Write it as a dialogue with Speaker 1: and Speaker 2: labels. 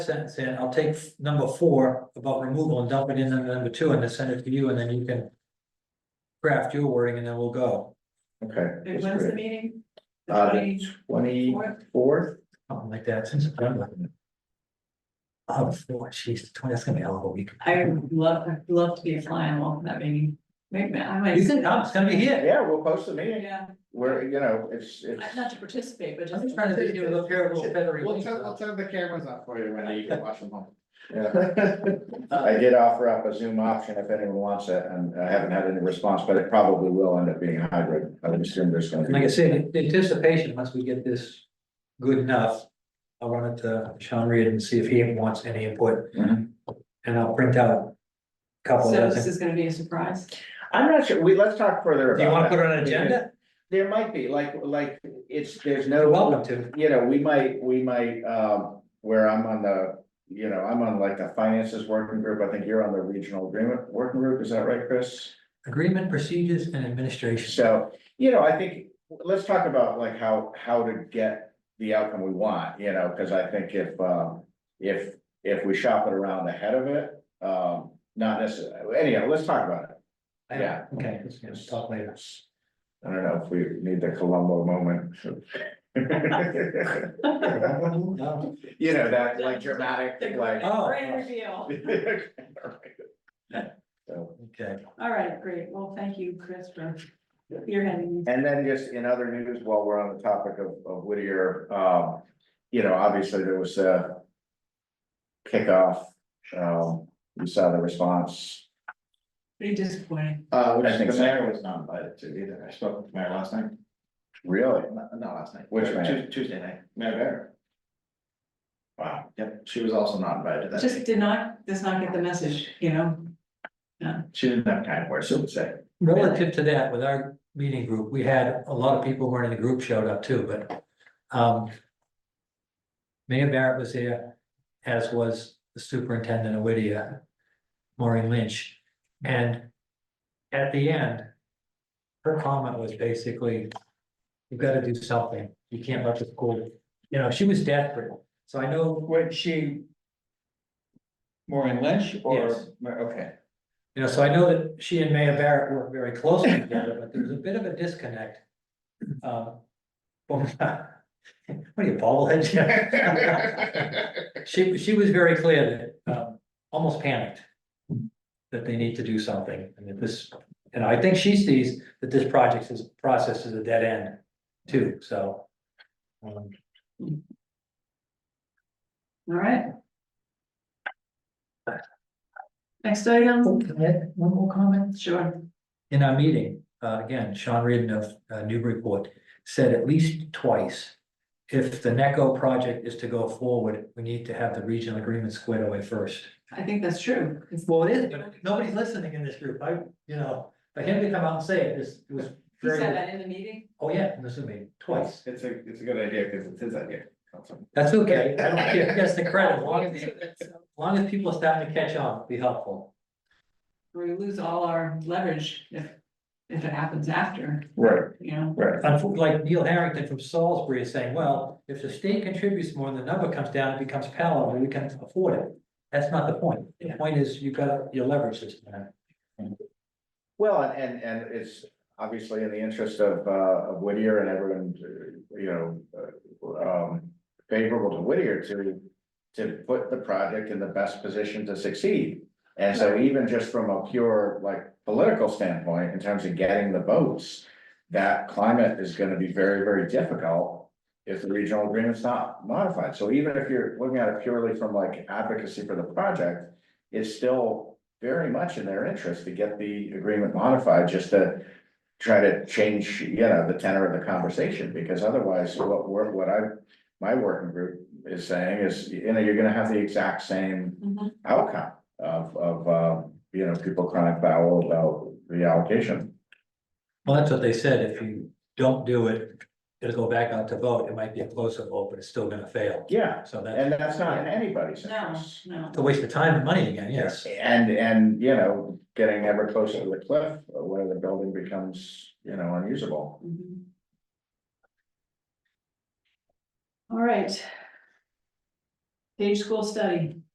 Speaker 1: sentence in, I'll take f- number four about removal and dump it in under number two and then send it to you and then you can. Craft your wording and then we'll go.
Speaker 2: Okay.
Speaker 3: Wait,
Speaker 2: that's
Speaker 3: When's the
Speaker 2: great.
Speaker 3: meeting? The
Speaker 2: Uh,
Speaker 3: twenty-
Speaker 2: the twenty-fourth,
Speaker 1: Something like that since. Oh, four, geez, the twenty, that's gonna be a hell of a week.
Speaker 3: I would love, I'd love to be a fly on the wall for that meeting. Maybe, I might.
Speaker 1: You can come, it's gonna be here.
Speaker 2: yeah, we'll post the meeting,
Speaker 3: Yeah,
Speaker 2: we're, you know, it's, it's.
Speaker 3: not to participate, but
Speaker 1: I'm
Speaker 3: just.
Speaker 1: just trying to do a little pair of little feathery
Speaker 4: We'll
Speaker 1: wings.
Speaker 4: turn, we'll turn the cameras off for you, Wendy, you can watch them home.
Speaker 2: yeah. I did offer up a Zoom option if anyone wants it, and I haven't had any response, but it probably will end up being hybrid, I would assume there's gonna
Speaker 1: And
Speaker 2: be.
Speaker 1: Like I said, the anticipation, once we get this good enough. I'll run it to Sean Reed and see if he wants any input
Speaker 2: Mhm.
Speaker 1: and I'll print out. a Couple
Speaker 3: So
Speaker 1: of
Speaker 3: this
Speaker 1: things.
Speaker 3: is gonna be a surprise.
Speaker 2: I'm not sure, we, let's talk further about
Speaker 1: Do you wanna
Speaker 2: that.
Speaker 1: put it on an agenda?
Speaker 2: There might be, like, like, it's, there's
Speaker 1: You're
Speaker 2: no.
Speaker 1: welcome to.
Speaker 2: you know, we might, we might, um, where I'm on the, you know, I'm on like the finances working group, I think you're on the regional agreement working group, is that right, Chris?
Speaker 1: Agreement, procedures and administration.
Speaker 2: So, you know, I think, let's talk about like how, how to get the outcome we want, you know, cause I think if, um, if, if we shop it around ahead of it, um, not necessarily, anyhow, let's talk about it. Yeah.
Speaker 1: Okay, let's, let's talk later.
Speaker 2: I don't know if we need the Columbo moment.
Speaker 1: No.
Speaker 2: You know, that like dramatic, like.
Speaker 1: Oh.
Speaker 3: Great reveal.
Speaker 2: So,
Speaker 1: Okay,
Speaker 3: All right, great. Well, thank you, Chris, for your heading.
Speaker 2: And then just in other news, while we're on the topic of, of Whittier, um, you know, obviously there was a kickoff, um, you saw the response.
Speaker 3: Pretty disappointing.
Speaker 4: Uh, which
Speaker 2: I think
Speaker 4: the
Speaker 2: so.
Speaker 4: mayor was not invited to either, I spoke with the mayor last night,
Speaker 2: Really?
Speaker 4: not, not last night.
Speaker 2: Which
Speaker 4: Tu-
Speaker 2: mayor?
Speaker 4: Tuesday night, Mayor Bear. Wow, yep, she was also not invited to that,
Speaker 3: Just
Speaker 4: meeting.
Speaker 3: did not, does not get the message, you know?
Speaker 4: she didn't have kind words to say.
Speaker 1: relative to that, with our meeting group, we had a lot of people who weren't in the group showed up too, but, um. Mayor Barrett was there, as was the superintendent of Whittier, Maureen Lynch, and at the end. Her comment was basically, you've got to do something, you can't let the school, you know, she was desperate, so I know
Speaker 5: Wait, she. Maureen Lynch
Speaker 1: Yes.
Speaker 5: or, okay,
Speaker 1: You know, so I know that she and Mayor Barrett work very closely together, but there's a bit of a disconnect. Um, from- What are you, bobblehead? Jeff? She, she was very clear that, um, almost panicked. That they need to do something and that this, and I think she sees that this project is, process is a dead end too, so. um,
Speaker 3: All right. Next item,
Speaker 1: oh, can I add One more comment?
Speaker 3: sure.
Speaker 1: in our meeting, uh, again, Sean Reardon of uh, Newburyport said at least twice. If the NECO project is to go forward, we need to have the regional agreement squared away first.
Speaker 3: I think that's true.
Speaker 1: Well, it is, but nobody's listening in this group. I, you know, for him to come out and say it, this it was
Speaker 3: He said
Speaker 1: very,
Speaker 3: that in the meeting?
Speaker 1: oh yeah, this is me, twice.
Speaker 4: It's a, it's a good idea, cause it's his idea. That's all.
Speaker 1: That's okay. I don't care. That's the credit. As long as, as long as people are starting to catch on, be helpful.
Speaker 3: We lose all our leverage if, if it happens after,
Speaker 2: Right,
Speaker 3: you know,
Speaker 2: right.
Speaker 1: Unfortunately, like Neil Harrington from Salisbury is saying, well, if the state contributes more and the number comes down, it becomes palatable, we can afford it. That's not the point. The point is you got your leverage system.
Speaker 2: Well, and, and it's obviously in the interest of, uh, of Whittier and everyone, uh, you know, uh, um, favorable to Whittier to, to put the project in the best position to succeed. And so even just from a pure, like, political standpoint, in terms of getting the votes, that climate is gonna be very, very difficult if the regional agreement's not modified. So even if you're looking at it purely from like advocacy for the project, it's still very much in their interest to get the agreement modified, just to try to change, you know, the tenor of the conversation, because otherwise, what we're, what I, my working group is saying is, you know, you're gonna have the exact same
Speaker 3: Mhm.
Speaker 2: outcome of, of, uh, you know, people crying foul about the allocation.
Speaker 1: Well, that's what they said. If you don't do it, it'll go back out to vote. It might be a closer vote, but it's still gonna fail.
Speaker 2: Yeah,
Speaker 1: So that's
Speaker 2: and that's not in anybody's
Speaker 3: no,
Speaker 2: interest.
Speaker 3: no.
Speaker 1: it's a waste of time and money again, yes.
Speaker 2: And, and, you know, getting ever closer to the cliff, uh, where the building becomes, you know, unusable.
Speaker 3: Mhm. All right. Page School Study.